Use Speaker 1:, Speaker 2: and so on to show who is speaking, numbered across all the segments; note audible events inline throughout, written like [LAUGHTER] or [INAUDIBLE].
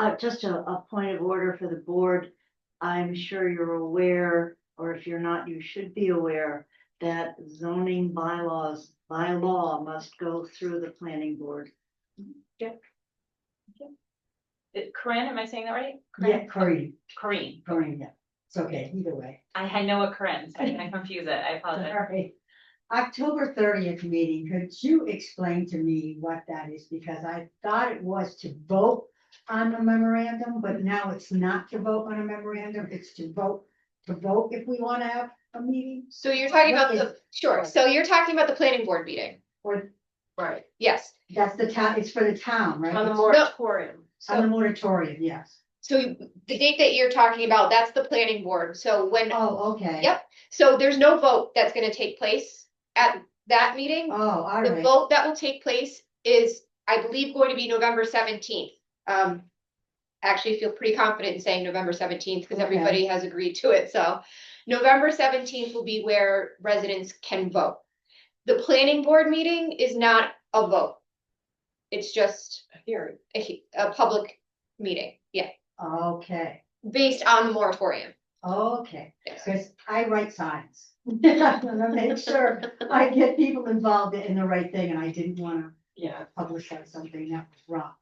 Speaker 1: Uh, just a, a point of order for the board. I'm sure you're aware, or if you're not, you should be aware that zoning bylaws by law must go through the planning board.
Speaker 2: It- Corinne, am I saying that right?
Speaker 3: Yeah,
Speaker 2: Corinne?
Speaker 3: Corinne,
Speaker 2: Corinne.
Speaker 3: Corinne, yeah. It's okay, either way.
Speaker 2: I had no a Corinne, so I didn't confuse it. I apologize.
Speaker 3: Sorry. October thirtieth meeting, could you explain to me what that is? Because I thought it was to vote on the memorandum, but now it's not to vote on a memorandum, it's to vote, to vote if we want to have a meeting
Speaker 4: So you're talking
Speaker 3: What
Speaker 4: about the, sure,
Speaker 3: right.
Speaker 4: so you're talking about the planning board meeting,
Speaker 3: or
Speaker 5: Right,
Speaker 4: yes,
Speaker 3: that's the town, it's for the town, right?
Speaker 5: on the
Speaker 3: It's
Speaker 5: moratorium.
Speaker 3: On the
Speaker 4: so,
Speaker 3: moratorium, yes.
Speaker 4: so you- the date that you're talking about, that's the planning board, so when,
Speaker 3: Oh, okay.
Speaker 4: Yep. so there's no vote that's gonna take place at that meeting.
Speaker 3: Oh, all
Speaker 4: The
Speaker 3: right.
Speaker 4: vote that will take place is, I believe, going to be November seventeenth. Um, actually feel pretty confident in saying November seventeenth, because
Speaker 3: Okay.
Speaker 4: everybody has agreed to it, so. November seventeenth will be where residents can vote. The planning board meeting is not a vote. It's just
Speaker 5: Hearing.
Speaker 4: a, he- a public meeting, yeah,
Speaker 3: Okay,
Speaker 4: based on the moratorium.
Speaker 3: okay.
Speaker 4: Yes.
Speaker 3: Because I write signs. [LAUGHS] I'm gonna make sure I get people involved in the right thing, and I didn't wanna
Speaker 5: Yeah.
Speaker 3: publicize something that was wrong.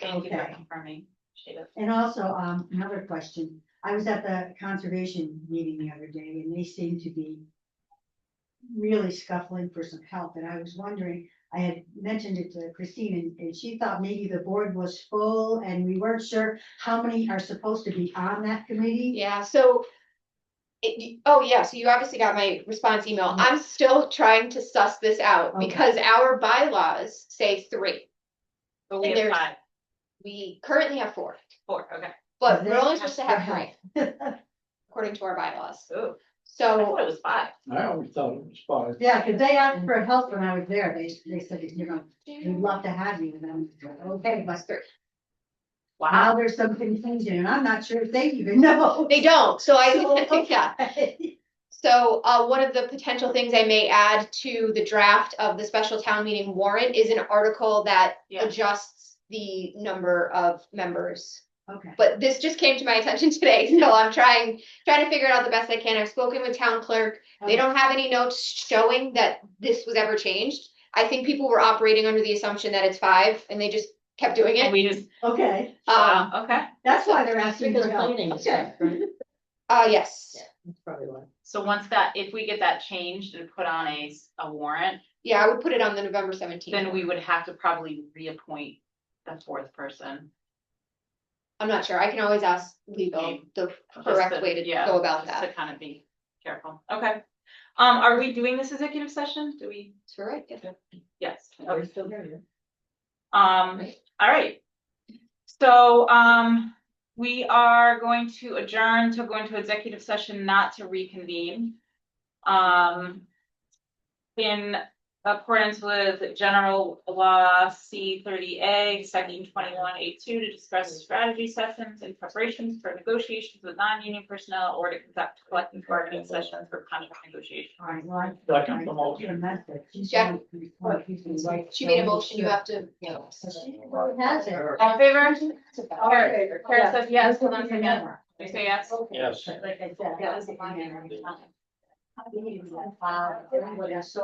Speaker 2: Thank you for
Speaker 3: Okay.
Speaker 2: confirming. Appreciate it.
Speaker 3: And also, um, another question, I was at the conservation meeting the other day, and they seemed to be really scuffling for some help, and I was wondering, I had mentioned it to Christine, and, and she thought maybe the board was full, and we weren't sure how many are supposed to be on that committee.
Speaker 4: Yeah, so. It, you- oh yeah, so you obviously got my response email. I'm still trying to suss this out
Speaker 3: Okay.
Speaker 4: because our bylaws say three.
Speaker 2: But we
Speaker 4: And
Speaker 2: have
Speaker 4: there's-
Speaker 2: five,
Speaker 4: We currently have four,
Speaker 2: four, okay.
Speaker 4: but we're
Speaker 3: They
Speaker 4: only supposed to have
Speaker 3: for
Speaker 4: three according to our bylaws.
Speaker 2: Ooh, I
Speaker 4: So
Speaker 2: thought it was five.
Speaker 6: I always thought it was five.
Speaker 3: Yeah, because they asked for help when I was there, they, they said, you know, we'd love to have you, and I'm, okay, but
Speaker 4: Plus three.
Speaker 2: Wow.
Speaker 3: now there's something changing, and I'm not sure if they even know.
Speaker 4: They don't, so [LAUGHS] I,
Speaker 3: [LAUGHS] So,
Speaker 4: yeah.
Speaker 3: okay.
Speaker 4: So, uh, one of the potential things I may add to the draft of the special town meeting warrant is an article that
Speaker 2: Yeah.
Speaker 4: adjusts the number of members.
Speaker 3: Okay,
Speaker 4: But this just came to my attention [LAUGHS] today, so I'm trying, trying to figure it out the best I can. I've spoken with town clerk.
Speaker 2: Oh.
Speaker 4: They don't have any notes showing that this was ever changed. I think people were operating under the assumption that it's five and they just kept doing
Speaker 2: And
Speaker 4: it.
Speaker 2: we just,
Speaker 3: okay,
Speaker 4: Um,
Speaker 2: wow, okay.
Speaker 3: that's why they're asking
Speaker 5: Because
Speaker 3: for help.
Speaker 5: planning is
Speaker 3: Okay.
Speaker 5: right, right?
Speaker 4: uh, yes.
Speaker 5: That's probably why.
Speaker 2: So once that, if we get that changed and put on a, s- a warrant,
Speaker 4: Yeah, I would put it on the November seventeenth.
Speaker 2: then we would have to probably reappoint the fourth person.
Speaker 4: I'm not sure. I can always ask legal the
Speaker 2: Just
Speaker 4: correct way to
Speaker 2: yeah,
Speaker 4: go about
Speaker 2: just
Speaker 4: that.
Speaker 2: To kind of be careful. Okay. Um, are we doing this executive session? Do we?
Speaker 4: Sure, right, yeah.
Speaker 2: Yes.
Speaker 5: Are
Speaker 2: Okay.
Speaker 5: we still here?
Speaker 2: Um,
Speaker 5: Right.
Speaker 2: all right. So, um, we are going to adjourn to go into executive session, not to reconvene. Um, in accordance with general law C thirty A, section twenty-one A two, to discuss strategy sessions and preparations for negotiations with non-union personnel or to conduct collective bargaining sessions for contract negotiation.
Speaker 3: All right, well, I-
Speaker 6: Second, the
Speaker 3: I
Speaker 6: motion.
Speaker 3: get a message. She's
Speaker 4: Jeff?
Speaker 3: gonna be like, she's gonna be like-
Speaker 4: She made a motion, you have to.
Speaker 3: So She really has it.
Speaker 2: All in favor?
Speaker 3: All
Speaker 2: Kara-
Speaker 3: right.
Speaker 2: Kara says yes, hold on a
Speaker 3: That's what we
Speaker 2: second.
Speaker 3: remember.
Speaker 2: You say yes?
Speaker 6: Yes.
Speaker 3: Like I said.
Speaker 2: That was the one.
Speaker 3: Wow. Everybody, so